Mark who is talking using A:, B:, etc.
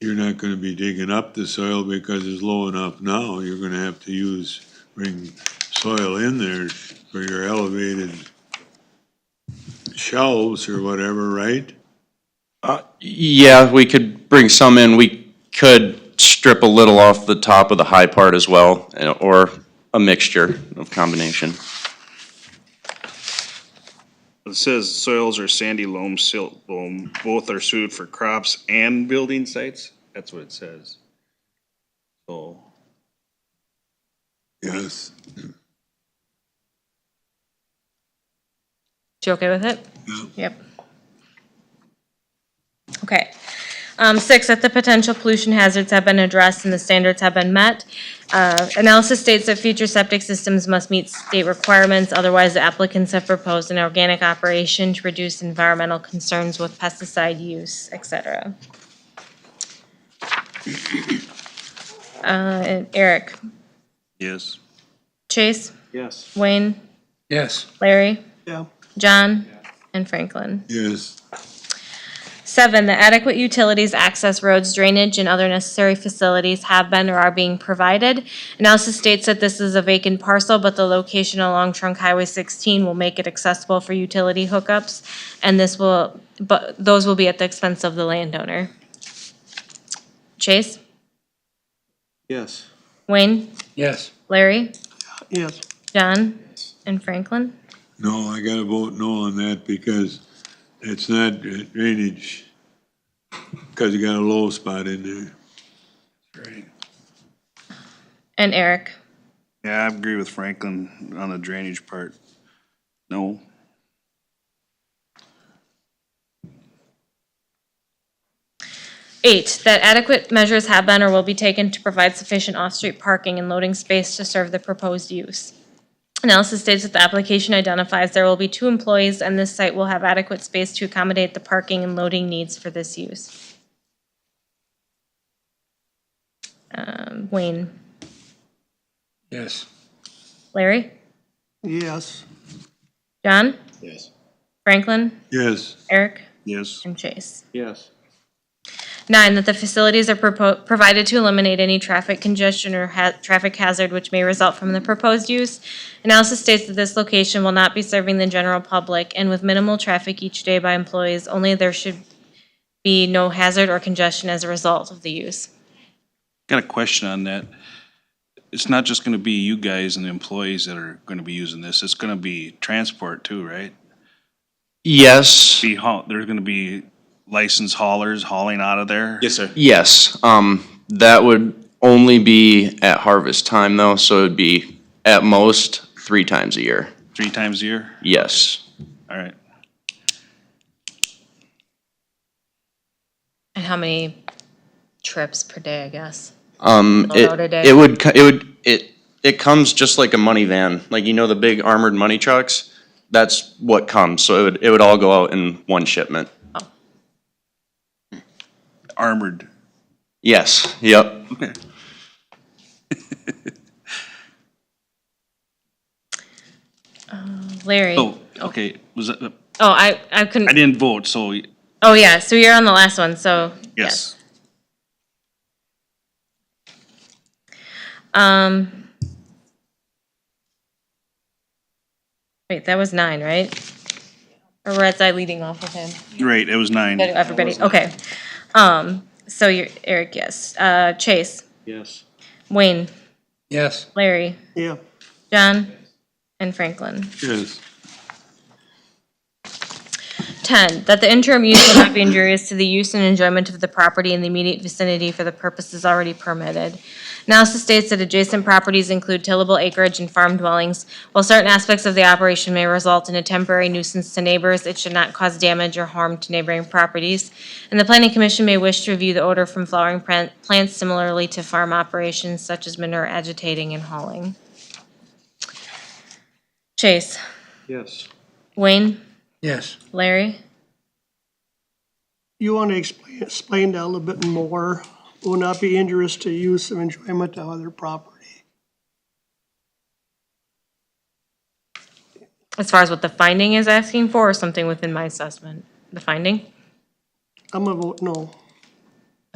A: You're not gonna be digging up the soil because it's low enough now, you're gonna have to use, bring soil in there for your elevated shelves or whatever, right?
B: Yeah, we could bring some in. We could strip a little off the top of the high part as well, and- or a mixture of combination.
C: It says soils are sandy loam, silt loam, both are suited for crops and building sites, that's what it says. So,
A: Yes.
D: Is you okay with it? Yep. Okay. Um, six, that the potential pollution hazards have been addressed and the standards have been met. Uh, analysis states that future septic systems must meet state requirements, otherwise the applicants have proposed an organic operation to reduce environmental concerns with pesticide use, et cetera. Uh, and Eric,
C: yes.
D: Chase,
C: Yes.
D: Wayne,
E: Yes.
D: Larry,
C: Yeah.
D: John, and Franklin.
A: Yes,
D: Seven, the adequate utilities, access roads, drainage, and other necessary facilities have been or are being provided. Analysis states that this is a vacant parcel, but the location along Trunk Highway sixteen will make it accessible for utility hookups. And this will, but those will be at the expense of the landowner. Chase,
C: Yes.
D: Wayne,
E: Yes.
D: Larry,
C: Yes.
D: John, and Franklin.
A: no, I gotta vote no on that because it's not drainage, cause you got a low spot in there.
E: Great.
D: And Eric.
C: Yeah, I agree with Franklin on the drainage part. No.
D: Eight, that adequate measures have been or will be taken to provide sufficient off-street parking and loading space to serve the proposed use. Analysis states that the application identifies there will be two employees and this site will have adequate space to accommodate the parking and loading needs for this use. Um, Wayne,
E: Yes.
D: Larry,
C: Yes.
D: John,
C: Yes.
D: Franklin,
A: Yes,
D: Eric,
C: Yes.
D: and Chase.
C: Yes.
D: Nine, that the facilities are propo- provided to eliminate any traffic congestion or ha- traffic hazard which may result from the proposed use. Analysis states that this location will not be serving the general public and with minimal traffic each day by employees, only there should be no hazard or congestion as a result of the use.
C: Got a question on that. It's not just gonna be you guys and the employees that are gonna be using this, it's gonna be transport too, right?
B: Yes,
C: Be haul, there's gonna be licensed haulers hauling out of there?
F: Yes, sir.
B: yes. Um, that would only be at harvest time though, so it'd be at most three times a year.
C: Three times a year?
B: Yes.
C: All right.
D: And how many trips per day, I guess?
B: Um, it,
D: Load a day.
B: it would, co- it would, it, it comes just like a money van, like you know the big armored money trucks? That's what comes, so it would, it would all go out in one shipment.
C: Armored.
B: Yes, yep.
C: Okay.
D: Larry?
C: Oh, okay, was that, I
D: Oh, I, I couldn't,
C: didn't vote, so
D: oh yeah, so you're on the last one, so.
C: yes.
D: Um. Wait, that was nine, right? Or was I leading off with him?
C: Right, it was nine.
D: Everybody, okay. Um, so you're, Eric, yes. Uh, Chase,
C: Yes.
D: Wayne,
E: Yes.
D: Larry,
C: Yeah.
D: John, and Franklin.
A: yes,
D: Ten, that the interim use will not be injurious to the use and enjoyment of the property in the immediate vicinity for the purposes already permitted. Analysis states that adjacent properties include tillable acreage and farm dwellings. While certain aspects of the operation may result in a temporary nuisance to neighbors, it should not cause damage or harm to neighboring properties. And the planning commission may wish to review the odor from flowering plant, plants similarly to farm operations such as manure agitating and hauling. Chase,
C: Yes.
D: Wayne,
E: Yes.
D: Larry?
G: You want to explain, explain that a little bit more? Will not be injurious to use of enjoyment of other property.
D: As far as what the finding is asking for, or something within my assessment? The finding?
G: I'm gonna vote no.